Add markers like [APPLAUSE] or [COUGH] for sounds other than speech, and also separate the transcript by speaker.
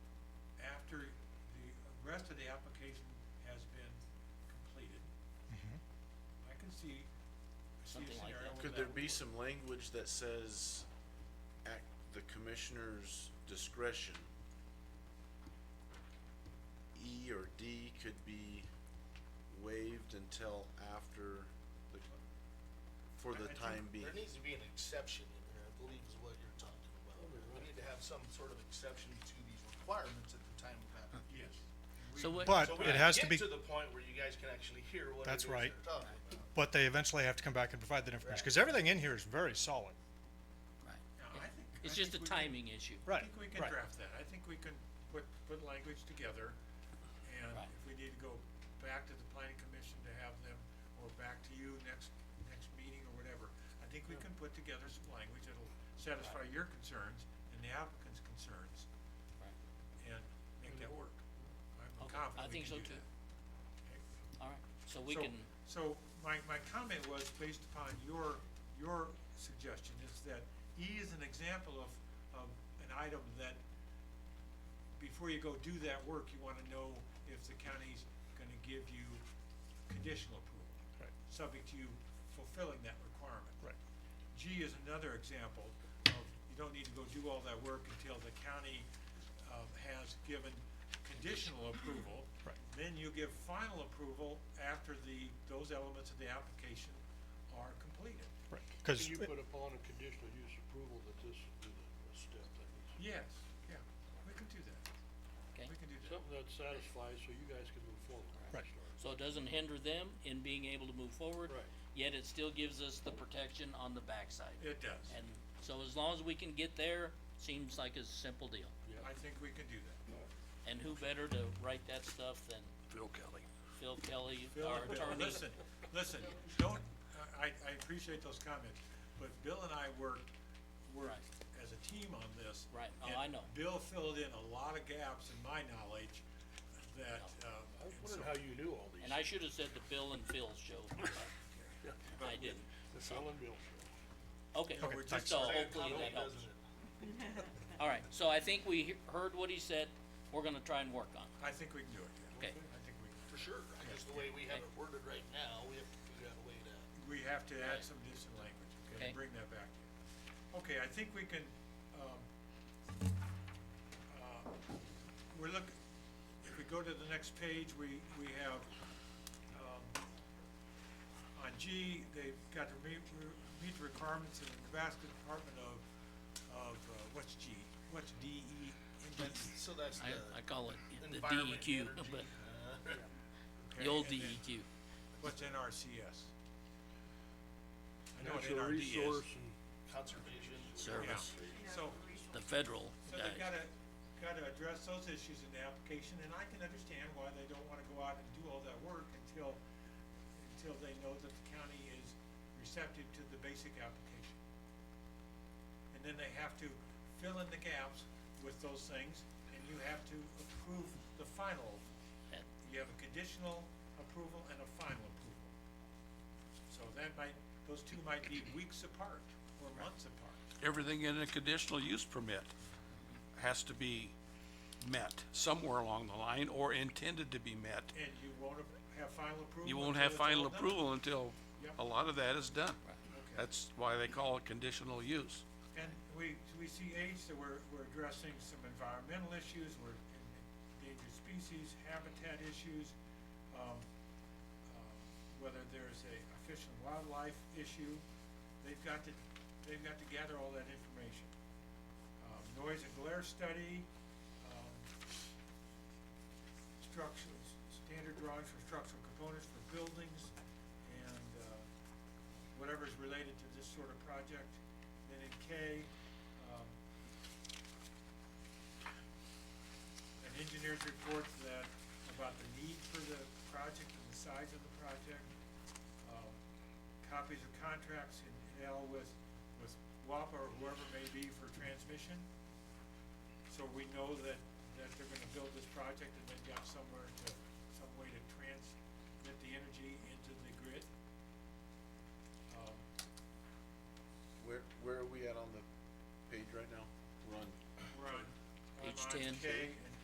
Speaker 1: application has been completed.
Speaker 2: Mm-hmm.
Speaker 1: I can see, I see a
Speaker 3: Something like
Speaker 1: scenario
Speaker 3: that.
Speaker 1: where
Speaker 4: Could there
Speaker 1: that
Speaker 4: be
Speaker 1: would-
Speaker 4: some language that says, at the commissioner's discretion? E or D could be waived until after the, for
Speaker 1: I- I
Speaker 4: the
Speaker 1: think
Speaker 4: time being.
Speaker 5: There needs to be an exception in there, I believe is what you're talking about. We need to have some sort of exception to these requirements at the time of application.
Speaker 1: Yes.
Speaker 3: So what?
Speaker 2: But
Speaker 5: So we
Speaker 2: it has to be,
Speaker 5: Get to the point where you guys can actually hear what it
Speaker 2: That's
Speaker 5: is
Speaker 2: right.
Speaker 5: they're talking about.
Speaker 2: but they eventually have to come back and provide that information, cause everything in here is very solid.
Speaker 3: Right.
Speaker 1: Now, I think. I
Speaker 3: It's just a
Speaker 1: think we can-
Speaker 3: timing issue.
Speaker 1: I
Speaker 2: Right,
Speaker 1: think we can
Speaker 2: right.
Speaker 1: draft that. I think we can put, put language together. And
Speaker 3: Right.
Speaker 1: if we need to go back to the planning commission to have them, or back to you next, next meeting or whatever, I think we can put together some language that'll satisfy your concerns and the applicant's concerns
Speaker 3: Right.
Speaker 1: and make that work. I'm
Speaker 3: Okay, I
Speaker 1: confident we
Speaker 3: think so
Speaker 1: can do
Speaker 3: too.
Speaker 1: that. Okay.
Speaker 3: All right, so we
Speaker 1: So-
Speaker 3: can,
Speaker 1: So, my, my comment was based upon your, your suggestion is that E is an example of, of an item that before you go do that work, you wanna know if the county's gonna give you conditional approval.
Speaker 2: Right.
Speaker 1: Subject to you fulfilling that requirement.
Speaker 2: Right.
Speaker 1: G is another example of, you don't need to go do all that work until the county, um, has given conditional approval.
Speaker 2: Right.
Speaker 1: Then you give final approval after the, those elements of the application are completed.
Speaker 2: Right, cause,
Speaker 6: Can you put upon a conditional use approval that this is a step that needs,
Speaker 1: Yes, yeah, we can do that,
Speaker 3: okay,
Speaker 1: we can do that.
Speaker 6: something that satisfies so you guys can move forward.
Speaker 2: Right.
Speaker 3: so it doesn't hinder them in being able to move forward.
Speaker 6: Right.
Speaker 3: Yet it still gives us the protection on the backside.
Speaker 1: It does,
Speaker 3: And so as long as we can get there, seems like a simple deal.
Speaker 1: I think we can do that.
Speaker 3: And who better to write that stuff than
Speaker 6: Phil Kelly.
Speaker 3: Phil Kelly,
Speaker 1: Bill,
Speaker 3: our
Speaker 1: Bill,
Speaker 3: attorney?
Speaker 1: listen, listen, don't, I, I appreciate those comments, but Bill and I worked, worked as a team on this.
Speaker 3: Right, oh,
Speaker 1: and
Speaker 3: I know.
Speaker 1: Bill filled in a lot of gaps in my knowledge that, um,
Speaker 6: I
Speaker 1: and
Speaker 6: was
Speaker 1: so,
Speaker 6: wondering how you knew all these.
Speaker 3: And I should have said the Bill and Phil show.
Speaker 1: [LAUGHS]
Speaker 3: I didn't.
Speaker 6: The Phil and Bill show.
Speaker 3: Okay,
Speaker 1: Yeah, we're just-
Speaker 3: so
Speaker 1: Say
Speaker 3: hopefully that helps. All right, so I think we he- heard what he said. We're gonna try and work on it.
Speaker 1: I think we can do it, yeah.
Speaker 3: Okay.
Speaker 1: I think we,
Speaker 5: For sure, I guess the way we have it worded right now, we have to figure out a way to.
Speaker 1: we have to add some additional language, okay, and
Speaker 3: Okay.
Speaker 1: bring that back to you. Okay, I think we can, um, uh, we're look, if we go to the next page, we, we have, um, on G, they've got to meet, meet the requirements of the Nebraska Department of, of, uh, what's G, what's D E?
Speaker 5: So that's the.
Speaker 3: I, I call it the
Speaker 5: environment,
Speaker 3: DEQ, [LAUGHS]
Speaker 5: energy,
Speaker 3: but
Speaker 5: uh,
Speaker 3: the old E
Speaker 1: Okay, and then
Speaker 3: DEQ.
Speaker 1: What's NRCS? I know what
Speaker 6: Natural
Speaker 1: NRD is.
Speaker 6: resource and
Speaker 5: Conservation.
Speaker 1: Yeah,
Speaker 3: Service,
Speaker 1: so,
Speaker 3: the federal
Speaker 1: So
Speaker 3: guys.
Speaker 1: they gotta, gotta address those issues in the application, and I can understand why they don't wanna go out and do all that work until, until they know that the county is receptive to the basic application. And then they have to fill in the gaps with those things, and you have to approve the final.
Speaker 3: And-
Speaker 1: You have a conditional approval and a final approval. So that might, those two might be weeks apart or months apart.
Speaker 7: everything in a conditional use permit has to be met somewhere along the line or intended to be met.
Speaker 1: And you won't have final approval?
Speaker 7: You won't
Speaker 1: until
Speaker 7: have
Speaker 1: it's all
Speaker 7: final
Speaker 1: done?
Speaker 7: approval until a lot of that is done.
Speaker 1: Okay.
Speaker 7: That's why they call it conditional use.
Speaker 1: And we, we see H, that we're, we're addressing some environmental issues, we're en- endangered species, habitat issues, um, um, whether there's a a fish and wildlife issue, they've got to, they've got to gather all that information. Um, noise and glare study, um, structures, standard drawings for structural components for buildings, and, uh, whatever is related to this sort of project. Then in K, um, an engineer's report that, about the need for the project and the size of the project. Um, Copies of contracts in L with, with WAPA or whoever may be for transmission. So we know that, that they're gonna build this project and they've got somewhere to, some way to transmit the energy into the grid. Um,
Speaker 4: Where, where are we at on the page right now? We're on
Speaker 1: We're on, I'm
Speaker 3: Page
Speaker 1: on
Speaker 3: 10.
Speaker 1: K,